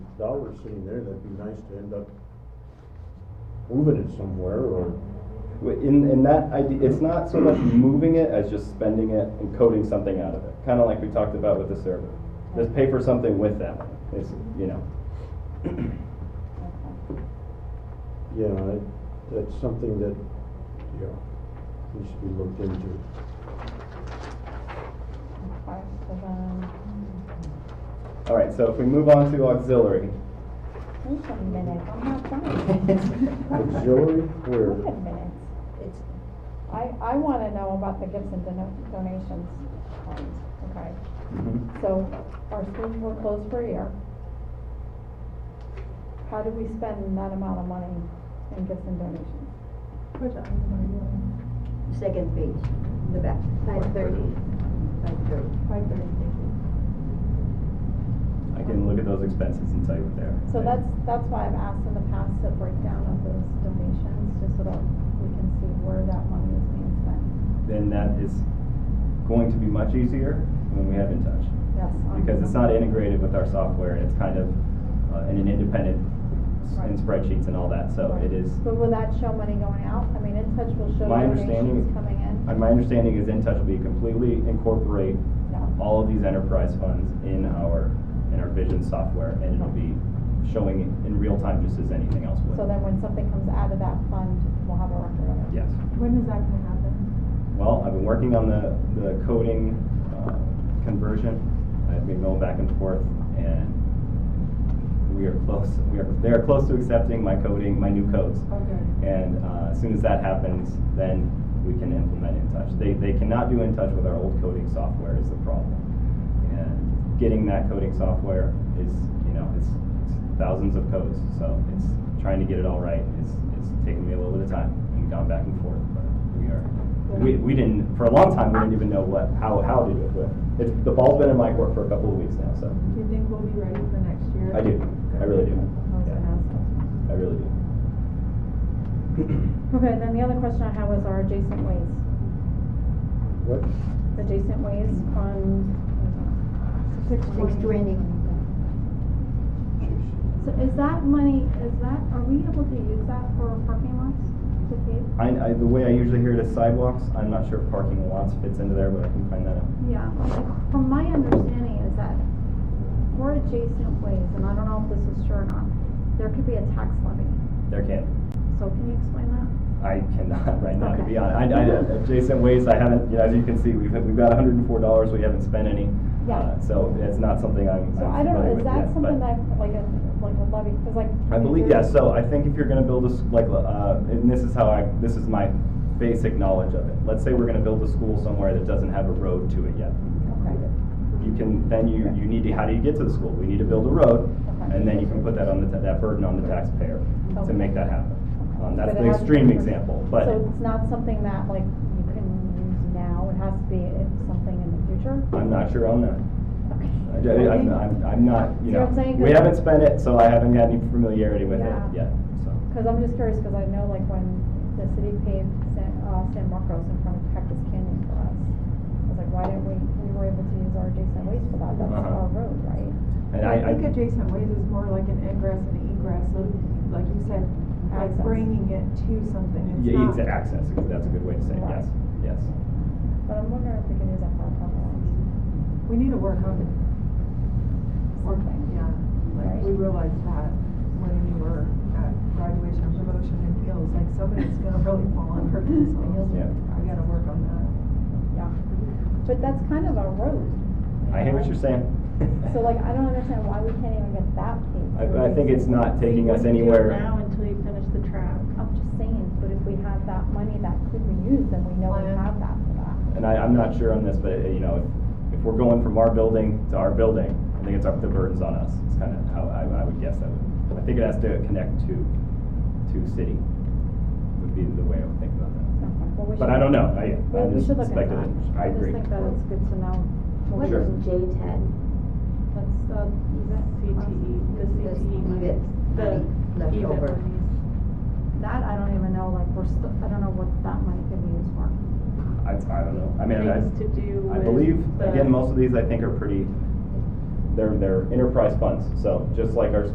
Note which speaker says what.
Speaker 1: dollars sitting there, that'd be nice to end up moving it somewhere or.
Speaker 2: W- In, in that idea, it's not so much moving it as just spending it and coding something out of it. Kind of like we talked about with the server. Just pay for something with that money. It's, you know,
Speaker 1: Yeah, I- that's something that, yeah, needs to be looked into.
Speaker 3: Five, seven,
Speaker 2: all right, so if we move on to auxiliary.
Speaker 3: wait a minute, I'm not done.
Speaker 1: Auxiliary,
Speaker 3: Wait a
Speaker 1: where,
Speaker 3: minute, it's, I, I wanna know about the gifts and dono- donations fund, okay? So our schools were closed for a year. How do we spend that amount of money in gifts and donations?
Speaker 4: Second page, the back. Five thirty. Five thirty.
Speaker 5: Five thirty, thank you.
Speaker 2: I can look at those expenses and tell you what they are.
Speaker 3: So that's, that's why I've asked in the past to break down of those donations, just so that we can see where that money is being spent.
Speaker 2: Then that is going to be much easier when we have in touch.
Speaker 3: Yes. I'm-
Speaker 2: because it's not integrated with our software, it's kind of uh, in an independent, s- in
Speaker 3: Right.
Speaker 2: spreadsheets and all that, so
Speaker 3: Right.
Speaker 2: it is,
Speaker 3: But will that show money going out? I mean, In Touch will show
Speaker 2: My understanding-
Speaker 3: donations coming in?
Speaker 2: uh, my understanding is InTouch will be completely incorporate
Speaker 3: No.
Speaker 2: all of these enterprise funds in our, in our vision software, and it'll be showing it in real time just as anything else
Speaker 3: So
Speaker 2: would.
Speaker 3: then when something comes out of that fund, we'll have a record of it?
Speaker 2: Yes.
Speaker 5: When is that gonna happen?
Speaker 2: Well, I've been working on the, the coding uh, conversion. I've been going back and forth, and we are close, we are, they are close to accepting my coding, my new codes.
Speaker 5: Okay.
Speaker 2: And uh, as soon as that happens, then we can implement InTouch. They, they cannot do InTouch with our old coding software is the problem. And getting that coding software is, you know, it's, it's thousands of codes. So it's trying to get it all right. It's, it's taken me a little bit of time and gone back and forth, but we are. We, we didn't, for a long time, we didn't even know what, how, how to do it. But it's, the ball's been in my court for a couple of weeks now, so
Speaker 5: Do you think we'll be ready for next year?
Speaker 2: I do. I really do.
Speaker 3: Those
Speaker 2: Yeah,
Speaker 3: are assets.
Speaker 2: I really do.
Speaker 3: Okay, then the other question I had was our adjacent ways.
Speaker 1: what,
Speaker 3: Adjacent ways fund.
Speaker 5: Six
Speaker 4: Six twenty.
Speaker 1: jeez.
Speaker 3: So is that money, is that, are we able to use that for parking lots to pave?
Speaker 2: I, I, the way I usually hear it is sidewalks, I'm not sure if parking lots fits into there, but I can find that out.
Speaker 3: Yeah, like, from my understanding is that for adjacent ways, and I don't know if this is true or not, there could be a tax levy.
Speaker 2: There can,
Speaker 3: So can you explain that?
Speaker 2: I cannot right now, to
Speaker 3: Okay.
Speaker 2: be honest. I, I, adjacent ways, I haven't, you know, as you can see, we've, we've got hundred and four dollars, we haven't spent any.
Speaker 3: Yeah.
Speaker 2: Uh, So it's not something I'm,
Speaker 3: So I
Speaker 2: I'm
Speaker 3: don't
Speaker 2: familiar
Speaker 3: know,
Speaker 2: with
Speaker 3: is that
Speaker 2: yet,
Speaker 3: something
Speaker 2: but
Speaker 3: that, like a, like a levy, cause like.
Speaker 2: I
Speaker 3: New
Speaker 2: believe, yeah,
Speaker 3: Jersey-
Speaker 2: so I think if you're gonna build a, s- like, uh, and this is how I, this is my basic knowledge of it. Let's say we're gonna build a school somewhere that doesn't have a road to it yet.
Speaker 3: Okay,
Speaker 2: You can, then you, you need to, how do you get to the school? We need to build a road,
Speaker 3: okay.
Speaker 2: and then you can put that on the, ta- that burden on the taxpayer to
Speaker 3: Okay.
Speaker 2: make that happen. Um, that's
Speaker 3: But it
Speaker 2: the
Speaker 3: has to be
Speaker 2: extreme
Speaker 3: for-
Speaker 2: example, but
Speaker 3: So it's not something that like you can use now, it has to be if something in the future?
Speaker 2: I'm not sure on that.
Speaker 3: Okay.
Speaker 2: I, I, I'm, I'm- I'm not, you
Speaker 3: See what
Speaker 2: know,
Speaker 3: I'm saying?
Speaker 2: we haven't spent it, so I haven't got any familiarity with it
Speaker 3: Yeah.
Speaker 2: yet, so.
Speaker 3: Cause I'm just curious, cause I know like when the city paved San, uh, San Marcos in front of Cactus Canyon for us, I was like, why didn't we, we were able to use our adjacent ways for that, that's
Speaker 2: Uh-huh.
Speaker 3: our road, right?
Speaker 2: And I,
Speaker 5: I
Speaker 2: I,
Speaker 5: think adjacent ways is more like an ingress and egress, so like you said, like
Speaker 3: Access.
Speaker 5: bringing it to something.
Speaker 2: yeah,
Speaker 5: It's
Speaker 2: it's
Speaker 5: not-
Speaker 2: access, that's a good way to say it, yes, yes.
Speaker 3: But I'm wondering if we can use that for our parking lots,
Speaker 5: We need to work on it. Work-
Speaker 3: something.
Speaker 5: Yeah, like we realized that when we were at graduation promotion and heels, like somebody's gonna really fall on her themselves.
Speaker 2: Yeah.
Speaker 5: We gotta work on that.
Speaker 3: But that's kind of a road. you
Speaker 2: I hear what
Speaker 3: know?
Speaker 2: you're saying.
Speaker 3: So like, I don't understand why we can't even get that paved.
Speaker 2: I, I think it's not taking us anywhere.
Speaker 6: now until you finish the track.
Speaker 3: I'm just saying, but if we have that money that could be used, then we know we
Speaker 5: Plan.
Speaker 3: have that for that.
Speaker 2: And I, I'm not sure on this, but, uh, you know, if, if we're going from our building to our building, I think it's up, the burden's on us. It's kind of how I, I would guess that would, I think it has to connect to, to city, would be the way I would think about that.
Speaker 3: Well, we
Speaker 2: But
Speaker 3: should-
Speaker 2: I don't know, I, I'm
Speaker 3: Well, we
Speaker 2: just
Speaker 3: should look into that.
Speaker 2: speculating. I agree.
Speaker 3: just think that it's good to know.
Speaker 4: What
Speaker 2: Sure.
Speaker 4: is J ten? E,
Speaker 3: That's the
Speaker 5: E.
Speaker 6: CTE, E? the
Speaker 4: This
Speaker 6: CTE money.
Speaker 4: EBIT money left
Speaker 6: EBIT
Speaker 4: over.
Speaker 6: monies.
Speaker 3: That I don't even know, like, we're still, I don't know what that money could be used for.
Speaker 2: I, I don't know, I mean, I,
Speaker 6: Things to do
Speaker 2: I
Speaker 6: with
Speaker 2: believe,
Speaker 6: the-
Speaker 2: again, most of these I think are pretty, they're, they're enterprise funds, so just like our